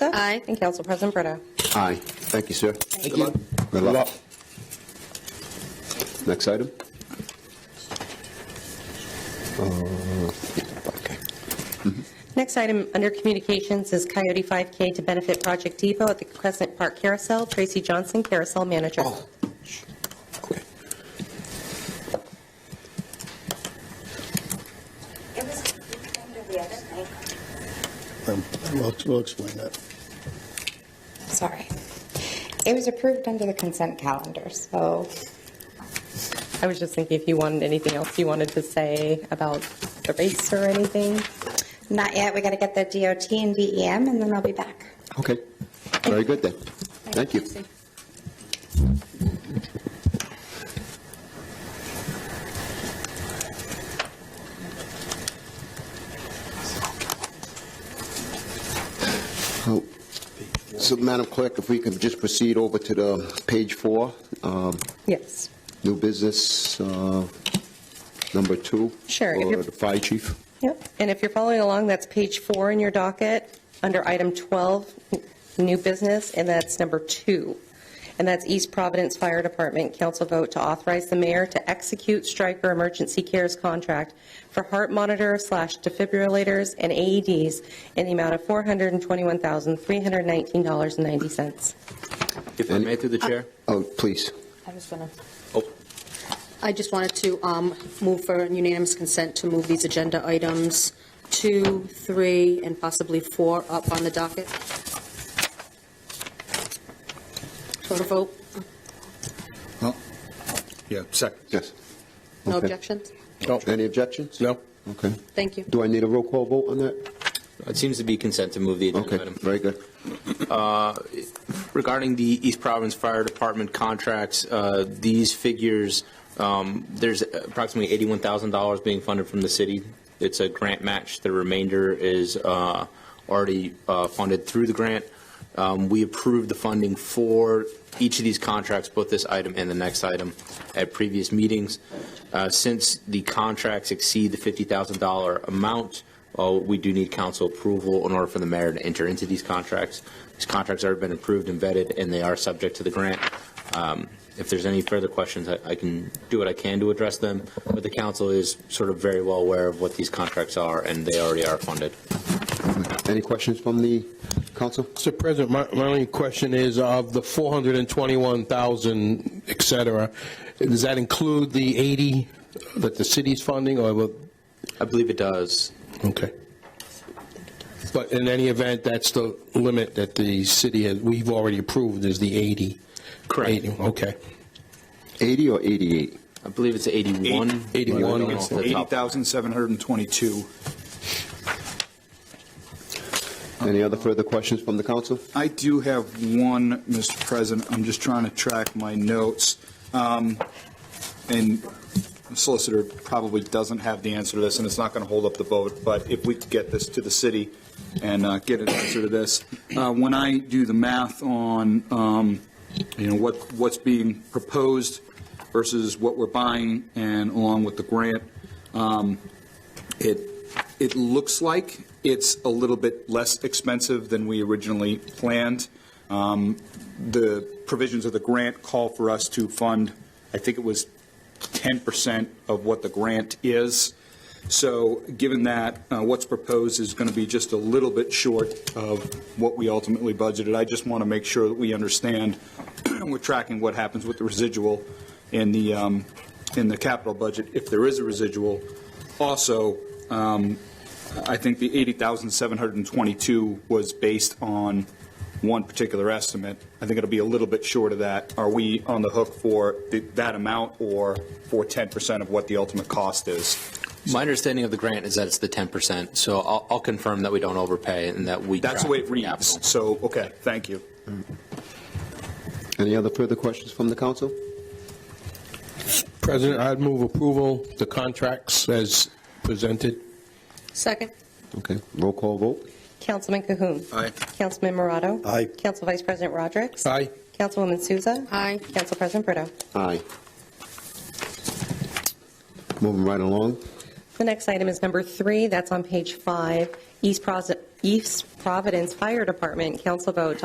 Miller? Aye. And Council President Brito? Aye. Thank you, sir. Thank you. Good luck. Next item? Uh, Okay. Next item under communications is Coyote 5K to benefit Project Depot at the Crescent Park Carousel. Tracy Johnson, Carousel Manager. Oh, sh- okay. It was under the other night. Um, We'll we'll explain that. Sorry. It was approved under the consent calendar, so I was just thinking if you wanted anything else you wanted to say about the race or anything? not yet. We got to get the DOT and DEM, and then I'll be back. Okay. Very good then. Thank you. Oh, So, Madam Clerk, if we could just proceed over to the page four, um, Yes. new business, uh, number two. Sure, if For you're- the fire chief. Yep. And if you're following along, that's page four in your docket, under item 12, n- new business, and that's number two. And that's East Providence Fire Department, council vote to authorize the mayor to execute Stryker Emergency Cares contract for heart monitor slash defibrillators and AEDs in the amount of $421,319.90. If I may, through the chair? Oh, please. I was gonna. Oh. I just wanted to um, move for unanimous consent to move these agenda items two, three, and possibly four up on the docket. Go to vote. Yeah, second. Yes. No Okay. objections? Any objections? No. Okay. Thank you. Do I need a roll call vote on that? It seems to be consent to move the Okay, agenda item. very good. Regarding the East Providence Fire Department contracts, uh, these figures, um, there's approximately $81,000 being funded from the city. It's a grant match. The remainder is uh, already uh, funded through the grant. Um, We approved the funding for each of these contracts, both this item and the next item, at previous meetings. Uh, Since the contracts exceed the $50,000 amount, uh, we do need council approval in order for the mayor to enter into these contracts. These contracts have been approved and vetted, and they are subject to the grant. Um, If there's any further questions, I I can do what I can to address them, but the council is sort of very well aware of what these contracts are, and they already are funded. Any questions from the council? Mr. President, my, my only question is, of the 421,000, et cetera, does that include the 80 that the city's funding, or, will- I believe it does. okay. But in any event, that's the limit that the city, has we've already approved is the 80? Correct. 80, Okay. 80 or 88? I believe it's 81. Eight- I don't 81. know off the It's top. 80,722. Any other further questions from the council? I do have one, Mr. President. I'm just trying to track my notes. Um, And the solicitor probably doesn't have the answer to this, and it's not going to hold up the vote, but if we could get this to the city and uh, get an answer to this. Uh, When I do the math on, um, you know, what, what's being proposed versus what we're buying, and along with the grant, um, it, it looks like it's a little bit less expensive than we originally planned. Um, The provisions of the grant call for us to fund, I think it was 10% of what the grant is. So given that, uh, what's proposed is going to be just a little bit short of what we ultimately budgeted. I just want to make sure that we understand, we're tracking what happens with the residual in the, um, in the capital budget, if there is a residual. Also, um, I think the 80,722 was based on one particular estimate. I think it'll be a little bit short of that. Are we on the hook for th- that amount or for 10% of what the ultimate cost is? My understanding of the grant is that it's the 10%, so I'll I'll confirm that we don't overpay and that we. That's the track way it for capital. reads. So, okay, thank you. Any other further questions from the council? President, I'd move approval, the contracts as presented. Second. Okay, roll call vote? Councilman Cahoon. Aye. Councilman Morato. Aye. Council Vice President Rodrick. Aye. Councilwoman Souza. Aye. Council President Brito. Aye. Moving right along. The next item is number three, that's on page five, East Pros- East Providence Fire Department, council vote to